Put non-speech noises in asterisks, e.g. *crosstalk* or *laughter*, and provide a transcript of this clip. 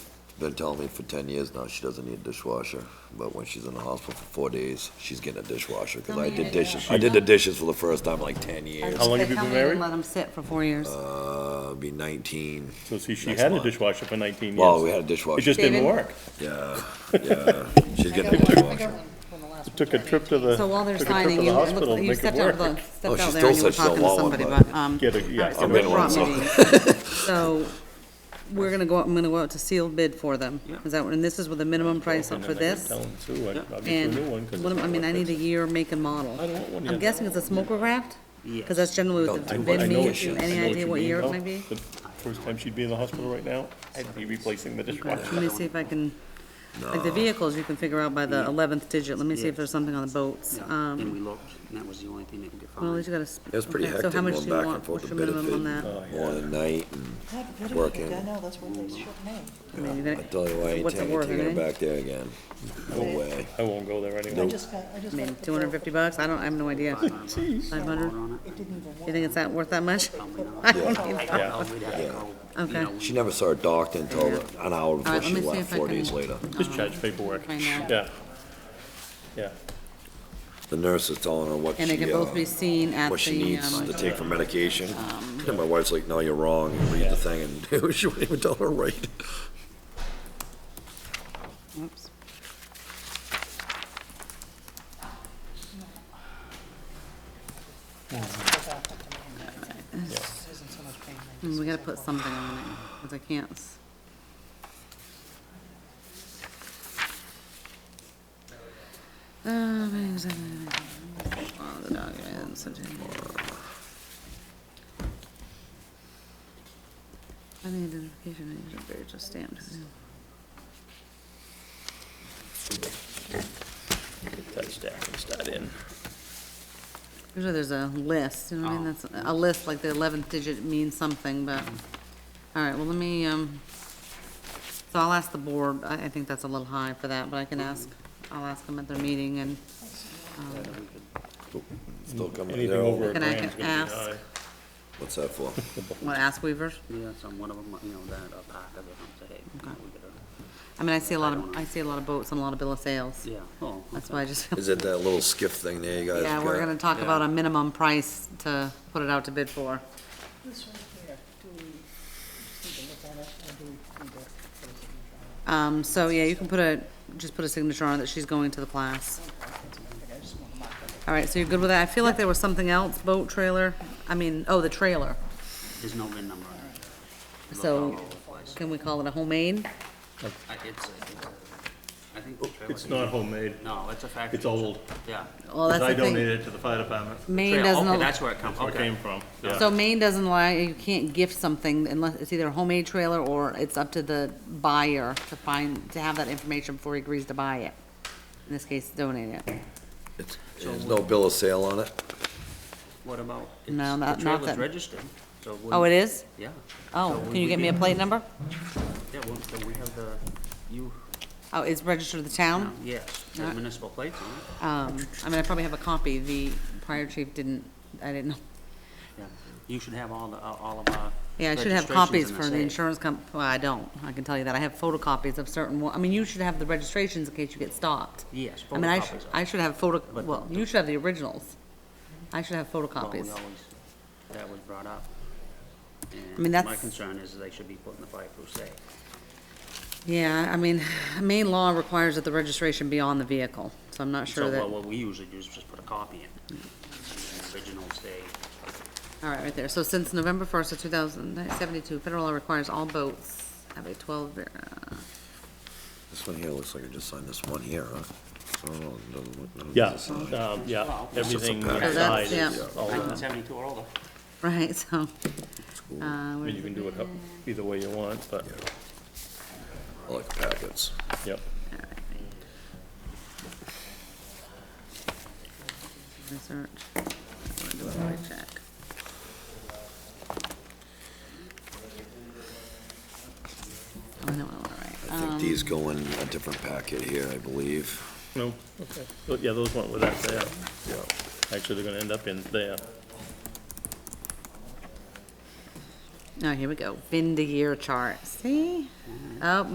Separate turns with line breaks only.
been telling me for ten years now she doesn't need a dishwasher, but when she's in the hospital for four days, she's getting a dishwasher, because
Oh,
I did dishes, I did the dishes for the first time in like ten years.
How long have you been married?
Let them sit for four years.
Uh, be nineteen,
So see, she
Next
had a
month.
dishwasher for 19 years.
well, we had a
It
dishwasher,
just didn't
David?
work.
yeah, yeah, she's getting a dishwasher.
Took a trip to the,
So while they're
took a trip
signing,
to the
you,
hospital
look-
to
you
make it
stepped out, of
work.
Oh,
the- stepped
she
out there
still
and you were
said she's a
talking to
law one,
somebody,
but-
but, um.
Get a- yeah,
all right, so
I'm
Rick
in one,
brought
so-
me these. So, we're gonna go out, I'm gonna go out to sealed bid for them. Is that, what- and this is with the minimum price up for
And then I could
this?
Tell them too, I'd- I'll get you a
And,
new one 'cause
what am- I mean, I need a year, make and model.
I don't want one
I'm
yet.
guessing it's a smoker graft? Cause that's generally what the
Don't
But I
bid
know
means,
she- I
any
know
idea
you
what
mean,
year it
though.
might be?
The First time she'd be in the hospital right now, I'd be replacing the
Okay,
dishwasher.
Let me see if I can, like the vehicles, you can figure out by the eleventh digit, let me see if there's something on the boats.
Yeah,
Um,
and we looked, and that was the only thing that could get
well, at least
found.
you gotta. s-
It's pretty
okay, so
hectic
how much
going
do you
back
want?
and forth
What's
to
your
bid
minimum on that?
and morning and night,
Not the
and
bid
working.
I know, that's what they should name.
I mean, you're
I
gonna-
tell you, I ain't
What's it
taking
worth,
taking her
eh?
back there again, no way.
I won't go there
I
anyway.
just got, I just.
I mean,
got the
two hundred and fifty bucks, I don't, I have no idea. Five hundred,
On
bill. It didn't even
you
work.
think it's that, worth that much?
Probably not.
*laughs* I don't
Yeah.
even-
I don't know, we'd have to go, you
Okay.
know,
She never saw her doctor until an hour
All
before
right, let
she
me see
left,
if I
four
can-
days later.
Discharge paperwork,
Find out.
yeah. Yeah,
The nurse is telling her what
And they
she,
can both be
uh,
seen at
what she
the,
needs to
um,
take for medication. And my wife's like, no, you're wrong, you read the thing, and *laughs* she wouldn't even tell her right.
oops.
This isn't so much pain.
Mm, We gotta put something on it, cause I can't. s- Uh, man, is that- Oh, the dog is so terrible. I need identification, I usually very just stamped.
that stack can start in.
Usually there's a list, you know what I mean, that's, a list, like the eleventh digit means something, but, all right, well, let me, um, so I'll ask the board, I, I think that's a little high for that, but I can ask, I'll ask them at their meeting and, um,
Still coming in
Anything
there,
over a
over-
Can I
grand's gonna be
ask?
high.
what's that for?
what, ask Weavers?
yeah, some one of them, you know, that, a pack of it, I'm saying, you know, we could, uh,
I mean, I see a lot of, I see a lot of boats and a lot of bill of sales,
yeah, oh,
that's
okay.
why I just feel,
Is it that little skiff thing there you guys
yeah, we're gonna
got?
talk about a minimum price to put it out to bid for.
This right here, do we, just need to look at it, or do we need to? put a signature on it?
Um, so, yeah, you can put a, just put a signature on it that she's going to the class.
Okay, I just want to mark it.
All right, so you're good with that? I feel like there was something else, boat trailer, I mean, oh, the trailer.
There's no VIN number on it. Looked all
So
over the place.
can we call it a homemade?
I- It's, it's, I think the trailer.
Oh, It's not homemade,
No, it's a factory.
it's old,
Yeah.
Well,
because
that's
I
the thing.
donated it to the fire department,
Maine
Trail,
doesn't,
Okay,
al-
that's where it comes,
where it came
okay.
from, yeah.
so Maine doesn't allow, you can't gift something unless, it's either a homemade trailer or it's up to the buyer to find, to have that information before he agrees to buy it. In this case, donate it.
It's- There's no bill of sale on it?
What about?
No,
it's-
not- not
The trailer's
that-
registered, so. we-
Oh, it is?
Yeah,
Oh,
So
can you
we
get me a
can-
plate number?
yeah, well, so we have the, you,
Oh, it's registered to the
no,
town?
yes, the
Um, Not-
municipal plates on it.
Um, I mean, I probably have a copy. The prior chief didn't, I didn't know
Yeah, You should have all the, all of our.
Yeah, I should have
registrations
copies
in
for the
safe.
insurance comp, well, I don't, I can tell you that, I have photocopies of certain, wa- I mean, you should have the registrations in case you get stopped.
Yes,
I mean, I
photocopies
should,
of
I
it.
should have photo,
But
well,
the-
you should have the originals. I should have
Well, we
photocopies.
always- That was brought up. And
mean,
My
that's-
concern is they should be put in the fireproof safe.
Yeah, I mean, main law requires that the registration be on the vehicle, so I'm not
So,
sure that,
well,
all
what we usually do is just put a copy in. And the Original stay,
right, right there. So since November first of two thousand seventy-two, federal law requires all boats have a twelve, ver- uh, *laughs*
This one here looks like I just signed this one here, huh? I don't know, it doesn't look- no,
Yeah,
it's a sign.
um, yeah, everything
pack.
So Oh, that's-
inside is
yeah.
all
nineteen
done.
seventy-two or older.
right, so,
cool.
uh, where
I mean,
is
you
it?
can do it up either way you want, but,
I like packets.
yep.
research. I'm gonna do a quick check. Oh, no, all
I
right.
think these go in a different packet here, I believe.
No, okay. Well, Yeah, those went with that there. Actually, they're gonna end up in there.
Oh, here we go. Bin to year chart. See? Oh,